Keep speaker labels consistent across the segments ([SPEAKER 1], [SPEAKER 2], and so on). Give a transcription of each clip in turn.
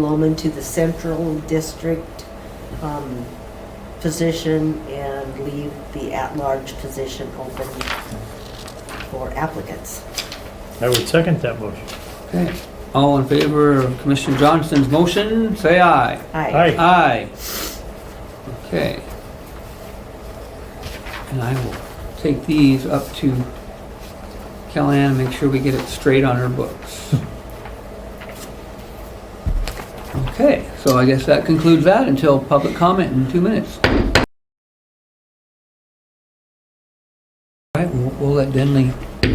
[SPEAKER 1] Loman to the central district um, position and leave the at-large position open for applicants.
[SPEAKER 2] I would second that motion.
[SPEAKER 3] Okay. All in favor of Commissioner Johnston's motion, say aye.
[SPEAKER 1] Aye.
[SPEAKER 2] Aye.
[SPEAKER 3] Aye. Okay. And I will take these up to Kellyanne and make sure we get it straight on her books. Okay, so I guess that concludes that until public comment in two minutes. All right, we'll we'll let Denley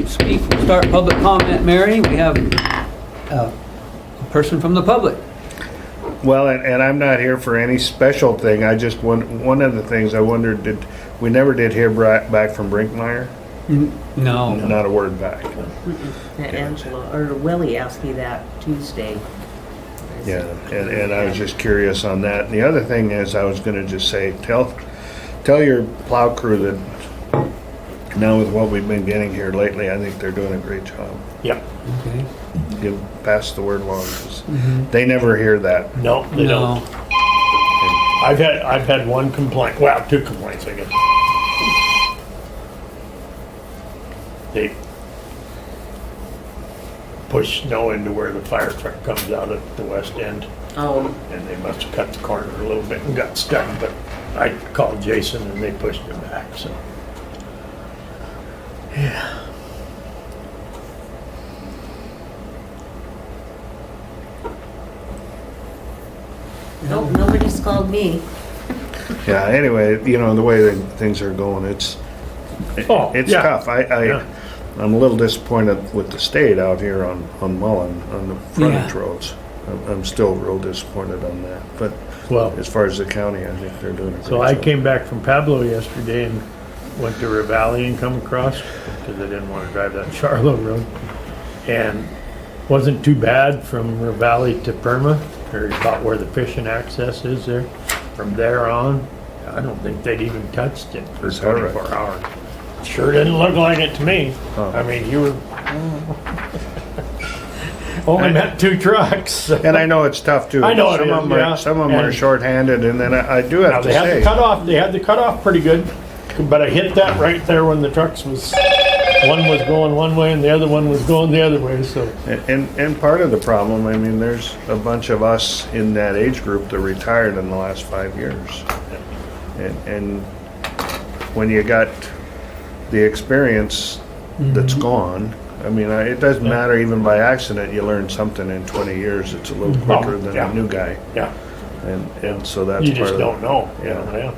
[SPEAKER 3] speak. We'll start public comment, Mary. We have uh, a person from the public.
[SPEAKER 4] Well, and, and I'm not here for any special thing. I just one one of the things I wondered did we never did hear bri- back from Brinkmeyer?
[SPEAKER 3] No.
[SPEAKER 4] Not a word back.
[SPEAKER 1] Angela, or Willie asked me that Tuesday. I
[SPEAKER 4] Yeah,
[SPEAKER 1] said,
[SPEAKER 4] and, and I was just curious on that. And the other thing is, I was going to just say, tell tell your plow crew that now with what we've been getting here lately, I think they're doing a great job.
[SPEAKER 2] Yep.
[SPEAKER 3] Okay.
[SPEAKER 4] Give pass the word along 'cause they never hear that.
[SPEAKER 2] No, they don't. I've had, I've had one complaint, well, two complaints, I guess. They push snow into where the fire truck comes out at the west end,
[SPEAKER 1] Oh,
[SPEAKER 2] and they must have cut the corner a little bit and got stuck, but I called Jason and they pushed it back, so.
[SPEAKER 1] nope, nobody's called me.
[SPEAKER 4] Yeah. Anyway, you know the way that things are going, it's
[SPEAKER 2] Oh,
[SPEAKER 4] It's
[SPEAKER 2] yeah.
[SPEAKER 4] tough. I, I
[SPEAKER 2] Yeah.
[SPEAKER 4] I'm a little disappointed with the state out here on on Mullen on the frontage
[SPEAKER 3] Yeah.
[SPEAKER 4] roads. I'm, I'm still real disappointed on that. But
[SPEAKER 2] Well-
[SPEAKER 4] as far as the county, I think they're doing a great
[SPEAKER 2] So I
[SPEAKER 4] job.
[SPEAKER 2] came back from Pablo yesterday and went to Ravalli and come across because I didn't want to drive that Charlo road. And wasn't too bad from Ravalli to Perma, or about where the fishing access is there. From there on, I don't think they'd even touched it for
[SPEAKER 4] Is that right?
[SPEAKER 2] twenty-four hours. Sure didn't look like it to me.
[SPEAKER 4] Huh.
[SPEAKER 2] I mean, you were. Only met two trucks.
[SPEAKER 4] And I know it's tough too.
[SPEAKER 2] I know it
[SPEAKER 4] some
[SPEAKER 2] is,
[SPEAKER 4] of them are
[SPEAKER 2] yeah.
[SPEAKER 4] some of them are
[SPEAKER 2] And-
[SPEAKER 4] shorthanded, and then I, I do have
[SPEAKER 2] Now,
[SPEAKER 4] to
[SPEAKER 2] they had
[SPEAKER 4] say
[SPEAKER 2] the cutoff, they had the cutoff pretty good, but I hit that right there when the trucks was, one was going one way and the other one was going the other way, so.
[SPEAKER 4] And, and and part of the problem, I mean, there's a bunch of us in that age group that retired in the last five years. And, and when you got the experience that's
[SPEAKER 2] Mm-hmm.
[SPEAKER 4] gone, I mean, I- it doesn't matter, even by accident, you learn something in twenty years, it's a little
[SPEAKER 2] Well,
[SPEAKER 4] quicker than
[SPEAKER 2] Mm-hmm. Oh, yeah.
[SPEAKER 4] a new guy.
[SPEAKER 2] Yeah,
[SPEAKER 4] And, and so that's
[SPEAKER 2] you
[SPEAKER 4] part
[SPEAKER 2] just
[SPEAKER 4] of
[SPEAKER 2] don't
[SPEAKER 4] it.
[SPEAKER 2] know, you
[SPEAKER 4] Yeah.
[SPEAKER 2] know, yeah.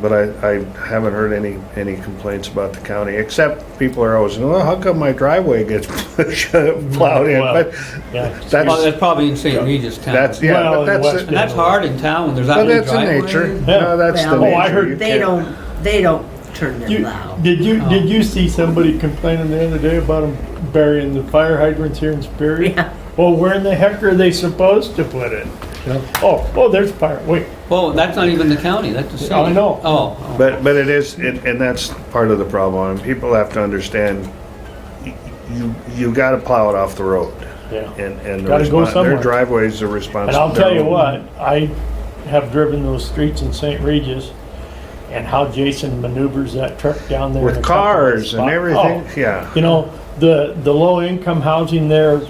[SPEAKER 4] But I, I haven't heard any, any complaints about the county, except people are always, well, how come my driveway gets plowed in?
[SPEAKER 2] Well,
[SPEAKER 4] But
[SPEAKER 2] yeah.
[SPEAKER 3] Well,
[SPEAKER 4] that's,
[SPEAKER 3] that's probably in St. Regis town.
[SPEAKER 4] That's yeah,
[SPEAKER 2] Well,
[SPEAKER 4] but
[SPEAKER 2] in
[SPEAKER 4] that's
[SPEAKER 2] West
[SPEAKER 4] the,
[SPEAKER 3] And that's hard in town when there's that
[SPEAKER 4] but
[SPEAKER 3] many
[SPEAKER 4] that's the
[SPEAKER 3] driveways.
[SPEAKER 4] nature.
[SPEAKER 2] Yeah.
[SPEAKER 4] No, that's the
[SPEAKER 1] Well,
[SPEAKER 4] nature.
[SPEAKER 2] Oh, I heard
[SPEAKER 4] You
[SPEAKER 1] They
[SPEAKER 4] can't-
[SPEAKER 1] don't, they don't turn their
[SPEAKER 2] You,
[SPEAKER 1] loud.
[SPEAKER 2] did you, did you see somebody complaining the other day about them burying the fire hydrants here in Superior?
[SPEAKER 1] Yeah.
[SPEAKER 2] Well, where in the heck are they supposed to put it? Oh, oh, there's fire, wait,
[SPEAKER 3] Well, that's not even the county, that's the city.
[SPEAKER 2] I know.
[SPEAKER 3] Oh, oh.
[SPEAKER 4] But but it is, it, and that's part of the problem. And people have to understand. y- You you got to plow it off the road,
[SPEAKER 2] yeah.
[SPEAKER 4] and and the
[SPEAKER 2] Gotta go
[SPEAKER 4] respons-
[SPEAKER 2] somewhere.
[SPEAKER 4] their driveways are responsible.
[SPEAKER 2] And I'll tell you what, I have driven those streets in St. Regis and how Jason maneuvers that truck down there. in
[SPEAKER 4] with
[SPEAKER 2] a couple of
[SPEAKER 4] cars and
[SPEAKER 2] spots.
[SPEAKER 4] everything.
[SPEAKER 2] Oh,
[SPEAKER 4] Yeah,
[SPEAKER 2] You know, the, the low income housing there,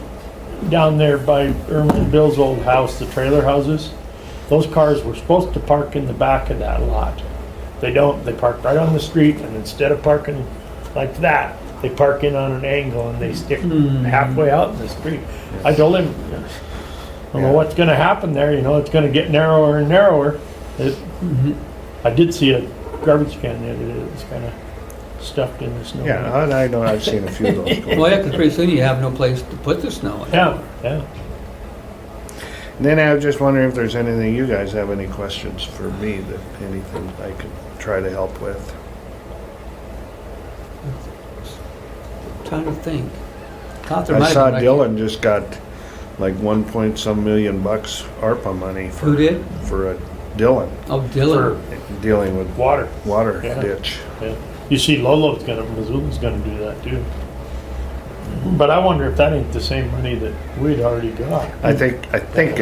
[SPEAKER 2] down there by Irma and Bill's old house, the trailer houses, those cars were supposed to park in the back of that lot. They don't, they park right on the street and instead of parking like that, they park in on an angle and they stick halfway out in the street. I told him, I don't know
[SPEAKER 4] Yeah.
[SPEAKER 2] what's gonna happen there, you know, it's gonna get narrower and narrower. It- I did see a garbage can the other day that was kinda stuffed in the snow.
[SPEAKER 4] yeah. And I know I've seen a few of those. going.
[SPEAKER 3] Well, yeah, 'cause pretty soon you have no place to put the snow. in.
[SPEAKER 2] Yeah, yeah.
[SPEAKER 4] And then I was just wondering if there's anything you guys have any questions for me that anything I could try to help with.
[SPEAKER 3] Trying to think. Thought there
[SPEAKER 4] I
[SPEAKER 3] might
[SPEAKER 4] saw
[SPEAKER 3] have been, like-
[SPEAKER 4] Dylan just got like one point some million bucks ARPA money for
[SPEAKER 3] Who did?
[SPEAKER 4] for a Dylan
[SPEAKER 3] Oh, Dylan.
[SPEAKER 4] dealing with
[SPEAKER 2] Water,
[SPEAKER 4] water
[SPEAKER 2] Yeah.
[SPEAKER 4] ditch.
[SPEAKER 2] yeah. You see Lolo's gonna, Missoula's gonna do that too. But I wonder if that ain't the same money that we'd already got.
[SPEAKER 4] I think I think